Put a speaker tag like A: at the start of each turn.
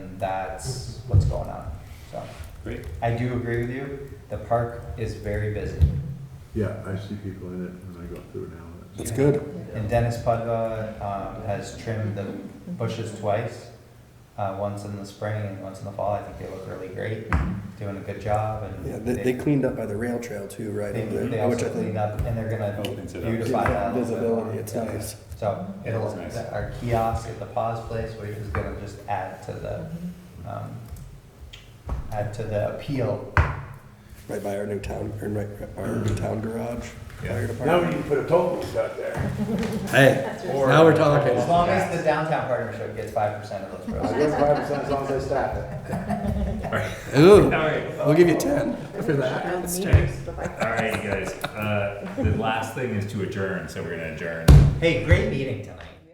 A: that's what's going on, so.
B: Great.
A: I do agree with you, the park is very busy.
C: Yeah, I see people in it when I go through now.
D: That's good.
A: And Dennis Pudva, um, has trimmed the bushes twice, uh, once in the spring and once in the fall, I think they look really great, doing a good job and.
D: Yeah, they, they cleaned up by the rail trail too, right?
A: They,
D: over there,
A: they
D: which I
A: also
D: think
A: cleaned up and they're gonna
B: Opens it up.
D: gives
A: beautify that. a
D: that
A: little bit more.
D: Visibility, it's
A: Yeah.
D: nice.
A: So
B: Yeah,
A: it'll,
B: that's nice.
A: the- our kiosk at the pause place, which is gonna just add to the, um, add to the appeal.
D: Right by our new town, or right, our new town garage. fire
E: Now
D: department.
E: we need to put a toll booth out there.
D: Hey,
A: Or-
D: now we're talking.
A: As long as the downtown partnership gets five percent of those
E: I
A: proceeds.
E: guess five percent as long as I staff it.
D: Ooh,
F: All right,
D: we'll give you ten.
E: For that.
F: That's
G: Bye-bye.
F: all right, you guys. Uh, the last thing is to adjourn, so we're gonna adjourn.
A: Hey, great meeting tonight.